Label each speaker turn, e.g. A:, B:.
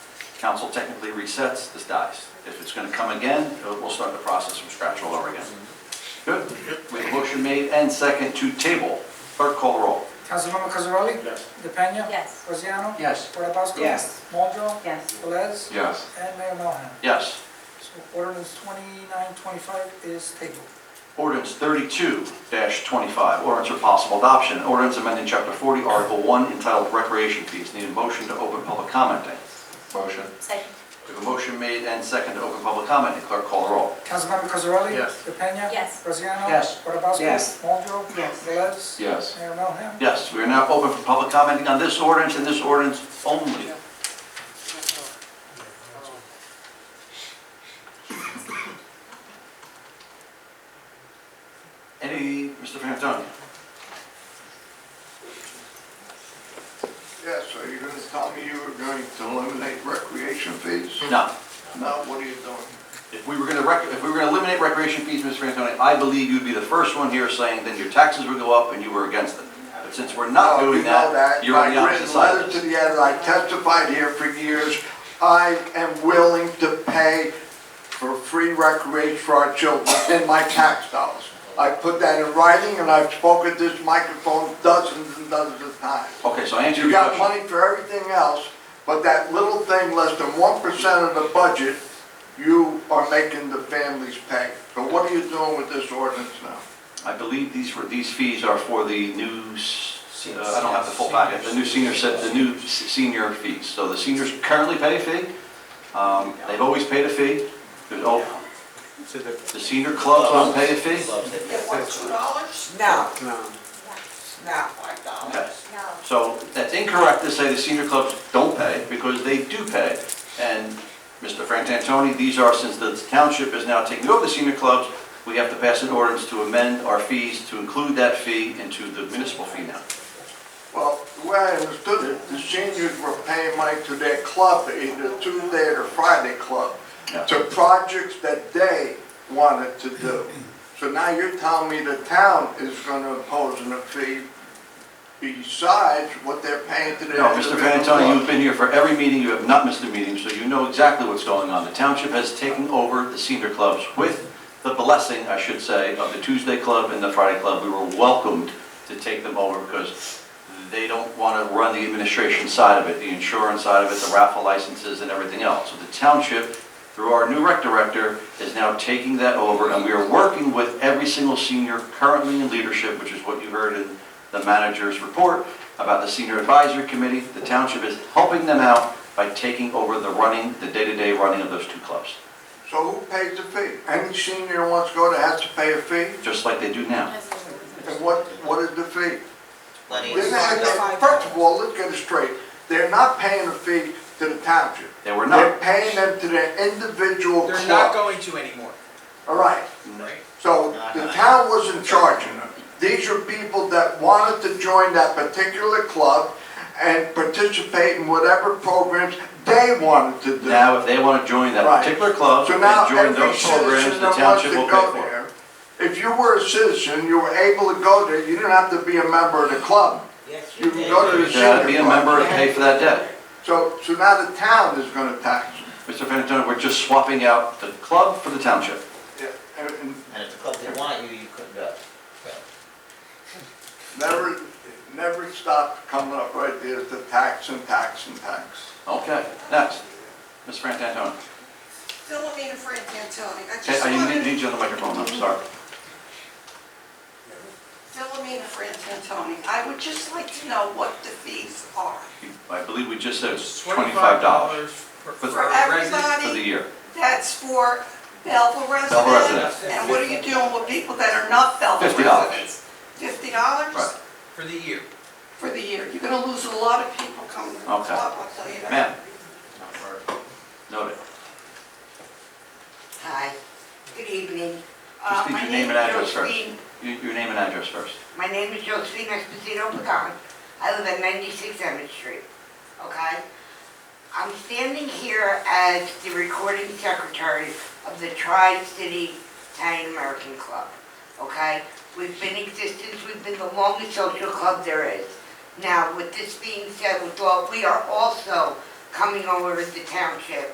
A: council technically resets, this dies. If it's going to come again, it'll- we'll start the process from scratch all over again. Good. We have a motion made and second to table. Clerk call the roll.
B: Councilmember Cosarelli?
C: Yes.
B: DePena?
D: Yes.
B: Rosiano?
A: Yes.
B: Portobasco?
E: Yes.
B: Moldro?
D: Yes.
B: Velez?
A: Yes.
B: And Mayor Melham.
A: Yes.
B: So ordinance 2925 is tabled.
A: Ordinance thirty-two twenty-five, ordinance for possible adoption, an ordinance amending chapter forty, article one entitled recreation fees. Need a motion to open public commenting. Motion.
D: Second.
A: We have a motion made and second to open public commenting. Clerk call the roll.
B: Councilmember Cosarelli?
C: Yes.
B: DePena?
D: Yes.
B: Rosiano?
E: Yes.
B: Portobasco?
E: Yes.
B: Moldro?
D: Yes.
B: Velez?
A: Yes.
B: Mayor Melham.
A: Yes, we are now open for public commenting on this ordinance and this ordinance only. Any, Mr. Frantoni?
F: Yeah, so you're gonna tell me you were going to eliminate recreation fees?
A: No.
F: Now, what are you doing?
A: If we were going to, if we were going to eliminate recreation fees, Mr. Frantoni, I believe you'd be the first one here saying then your taxes would go up and you were against it. But since we're not
F: Oh,
A: doing
F: you know
A: that, you're on the opposite
F: I've
A: side.
F: written letters to the editor, I testified here for years, I am willing to pay for free recreation for our children in my tax dollars. I put that in writing, and I've spoken this microphone dozens and dozens of times.
A: Okay, so answer
F: You
A: your
F: got
A: question.
F: money for everything else, but that little thing, less than one percent of the budget, you are making the families pay. So what are you doing with this ordinance now?
A: I believe these were, these fees are for the new, s- uh, I don't have the full packet, the new senior set, the new s- senior fees. So the seniors currently pay a fee. Um, They've always paid a fee. There's al- The senior clubs don't pay a fee?
E: It was two dollars? No,
C: No.
E: no, five dollars.
A: Okay.
D: No.
A: So that's incorrect to say the senior clubs don't pay, because they do pay. And Mr. Frank Antoni, these are, since the township is now taking over the senior clubs, we have to pass an ordinance to amend our fees to include that fee into the municipal fee now.
F: Well, the way I understood it, the seniors were paying money to their club, either Tuesday or Friday club,
A: Yeah.
F: to projects that they wanted to do. So now you're telling me the town is gonna impose a fee besides what they're paying to their.
A: No, Mr.
F: individual
A: Frantoni,
F: clubs?
A: you've been here for every meeting, you have not missed a meeting, so you know exactly what's going on. The township has taken over the senior clubs with the blessing, I should say, of the Tuesday club and the Friday club. We were welcomed to take them over because they don't want to run the administration side of it, the insurance side of it, the raffle licenses and everything else. So the township, through our new rec director, is now taking that over, and we are working with every single senior currently in leadership, which is what you heard in the manager's report about the senior advisory committee. The township is helping them out by taking over the running, the day-to-day running of those two clubs,
F: So who pays the fee? Any senior who wants to go there has to pay a fee?
A: just like they do now.
F: And what, what is the fee?
E: Lenny.
F: They're not- First of all, let's get it straight, they're not paying a fee to the township.
A: They were
F: They're
A: not,
F: paying them to their individual
G: They're not
F: club.
G: going to anymore.
F: All right, so the
A: Uh-huh.
F: town wasn't charging them. These are people that wanted to join that particular club and participate in whatever programs they wanted to do.
A: now, if they want to join that
F: Right.
A: particular club
F: So
A: and
F: now,
A: join
F: every
A: those programs,
F: citizen
A: the
F: that wants to
A: township will
F: go
A: pay for it.
F: there, if you were a citizen, you were able to go there, you didn't have to be a member of the club.
E: Yes,
F: You can go to the
A: You gotta
F: senior
A: be a
F: club.
A: member and pay for that debt.
F: So, so now the town is gonna tax. them.
A: Mr. Frantantoni, we're just swapping out the club for the township.
F: And- and
E: And if the club didn't want you, you couldn't go.
F: Never, never stop coming up right there to tax and tax and tax.
A: Okay, next, Ms. Frantantoni.
H: Philomena Frank Antoni. I
A: Okay,
H: just
A: I need-
H: wanted,
A: need you on the microphone, I'm sorry.
H: Philomena Frank Antoni, I would just like to know what the fees are.
A: I believe we just said it's
G: Twenty-five
A: $25
G: dollars for
A: For
H: For
G: for residents.
A: for the
H: everybody,
A: year.
H: that's for Belleville
A: Belleville
H: residents. And what are you doing with people that are not Belleville
A: $50.
H: residents? Fifty
A: Right.
H: dollars
G: for the year.
H: for the year. You're gonna lose a lot of people coming to the club,
A: Okay.
H: I'll tell you that.
A: Ma'am? Noted.
I: Hi, good evening.
A: Just
I: Uh,
A: need
I: my
A: your name and
I: is
A: address first.
I: Josephine-
A: Your your name and address first.
I: My name is Josephine Esposito Pagan. I live at 96 Emmett Street, okay? I'm standing here as the recording secretary of the Tri-City Italian American Club, okay? We've been in existence, we've been the longest social club there is. Now, with this being said, with all, we are also coming over to the township